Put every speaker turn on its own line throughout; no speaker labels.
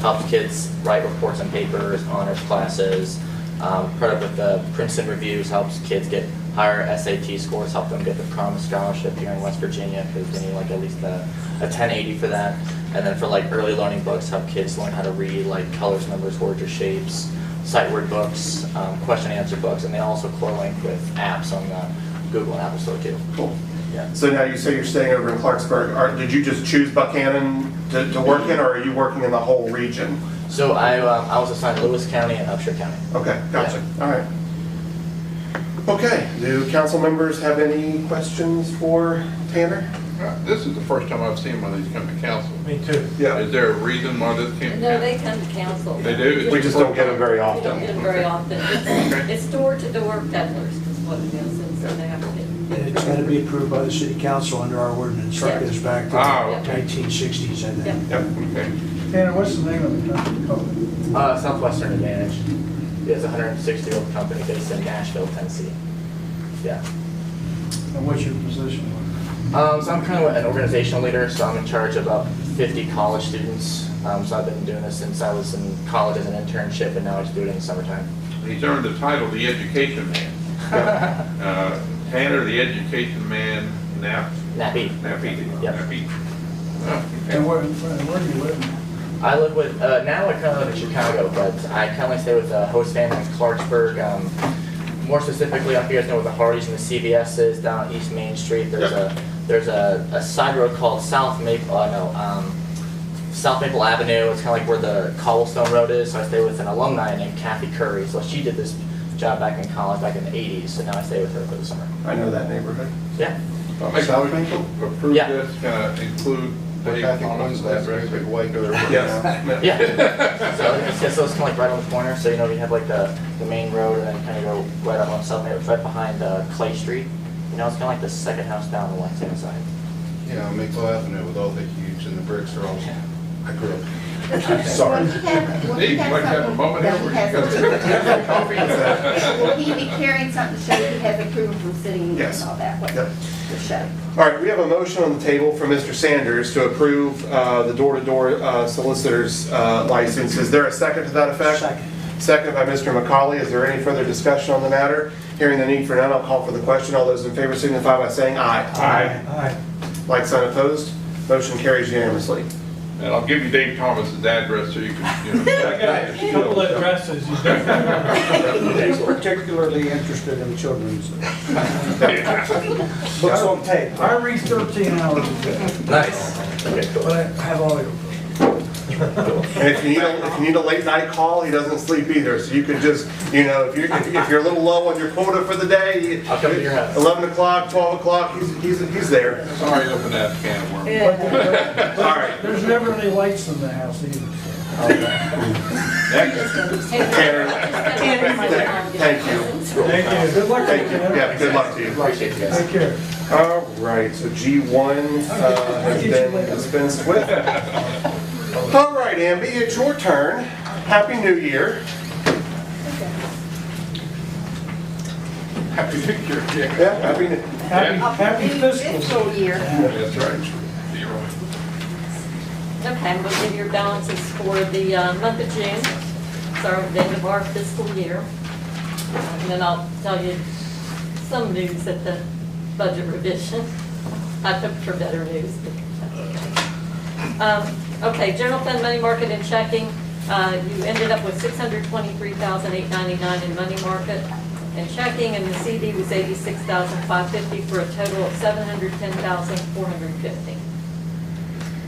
helps kids write reports on papers, honors classes. Um, part of with the Princeton reviews helps kids get higher SAT scores, help them get the Promise Scholarship here in West Virginia, because they need like at least a, a ten eighty for that. And then for like early learning books, help kids learn how to read like colors, numbers, words, or shapes. Sight word books, um, question and answer books, and they also correlate with apps on the Google and Apple Store too.
Cool.
Yeah.
So now you say you're staying over in Clarksburg. Are, did you just choose Buchanan to, to work in, or are you working in the whole region?
So I, um, I was assigned Lewis County and Upshur County.
Okay, gotcha. All right. Okay, do council members have any questions for Tanner?
Uh, This is the first time I've seen one of these come to council.
Me too.
Is there a reason why this came to
No, they
council?
come to council.
They do?
We just don't get them very
We don't
often.
get them very often. It's- It's door-to-door peddlers is what it is, and so they have to get.
And it's got to be approved by the city council under our ordinance, that goes back to
Ah,
Oh,
okay.
nineteen sixties, I
Yeah.
think.
Yep.
Okay.
Tanner, what's the name of the company called?
Uh, Southwestern Advantage is a hundred and sixty year old company based in Nashville, Tennessee. Yeah.
And what's your position?
Um, so I'm kind of an organizational leader, so I'm in charge of about fifty college students. Um, so I've been doing this since I was in college as an internship and now I just do it in the summertime.
He's earned the title, the education man. Uh, Tanner, the education man, Nap,
Nappy.
Nappy.
Yep.
Nappy. Oh, okay.
And where, where do you live?
I live with, uh, now I kind of live in Chicago, but I kind of stay with a host family in Clarksburg. Um, more specifically, up here, I know where the Hardee's and the CVS's down East Main Street. There's
Yeah.
a, there's a, a side road called South Maple, oh no, um, South Maple Avenue. It's kind of like where the cobblestone road is. So I stay with an alumni named Kathy Curry. So she did this job back in college, back in the 80s. So now I stay with her for the summer.
I know that neighborhood.
Yeah.
I'll make a
South
motion to approve
Yeah.
this, uh, include
Well,
Dave
I think
Thomas,
one's
that
last very big way to their.
Yes.
Yeah. so it's, yeah, so it's kind of like right on the corner. So you know, you have like the, the main road, and then kind of go right up on South Maple, right behind uh, Clay Street. You know, it's kind of like the second house down on the left hand side.
Yeah, Maple Avenue with all the huge and the bricks are all, I grew up.
Sorry.
Will he have- will he
Steve,
have
you like to have a
something-
moment
that
here where
he has
you got
something-
a coffee?
Will he be carrying something to show he has approval from city
Yes.
and all that, what,
Yep.
to show?
All right, we have a motion on the table from Mr. Sanders to approve uh, the door-to-door uh, solicitor's uh, license. Is there a second to that effect?
Second.
Second by Mr. McCauley. Is there any further discussion on the matter? Hearing the need for none, I'll call for the question. All those in favor signify by saying aye.
Aye.
Like sign opposed, motion carries unanimously.
And I'll give you Dave Thomas's address so you can, you know. check out his
Couple
skills.
addresses.
He's particularly interested in children's books on tape.
I read thirteen hours a day,
Nice. Okay,
but
cool.
I have all your books.
And if you need, a- if you need a late night call, he doesn't sleep either. So you can just, you know, if you're, if if you're a little low on your quota for the day,
I'll come to your house.
11 o'clock, 12 o'clock, he's, he's, he's there.
Sorry, to open that can of worms.
All right.
There's never any lights in the house either.
Thank you.
Thank you. Good luck.
Thank you. Yeah, good luck to you.
Appreciate you guys.
Take care.
All right, so G1 uh, has been dispensed with. All right, Amby, it's your turn. Happy New Year.
Happy New Year, yeah.
Yeah, happy, New-
Happy, happy fiscal.
Fiscal year.
That's right. You're right.
Okay, we'll give your balances for the uh, month of June, so the end of our fiscal year. And then I'll tell you some news at the budget revision. I hope for better news. Um, Okay, general fund money market and checking, uh, you ended up with $623,899 in money market and checking, and the CD was $86,550 for a total of $710,450.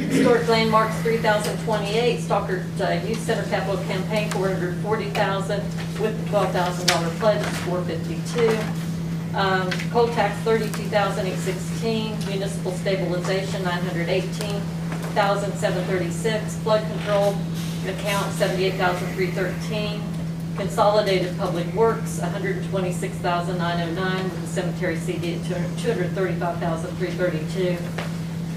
Historic landmarks, three thousand twenty-eight, Stockard uh, Youth Center capital campaign, four hundred forty thousand, with the twelve thousand dollar pledge, four fifty-two. Um, coal tax, thirty-two thousand eight sixteen, municipal stabilization, nine hundred eighteen thousand seven thirty-six, flood control account, seventy-eight thousand three thirteen, consolidated public works, one hundred twenty-six thousand nine oh nine, with the cemetery CD at two hundred thirty-five thousand three thirty-two.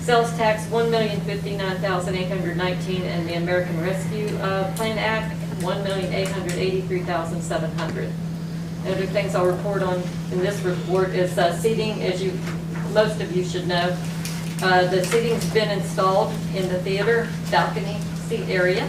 Sales tax, one million fifty-nine thousand eight hundred nineteen, and the American Rescue uh, Plan Act, one million eight hundred eighty-three thousand seven hundred. Other things I'll report on in this report is uh, seating, as you, most of you should know. Uh, The seating's been installed in the theater balcony seat area.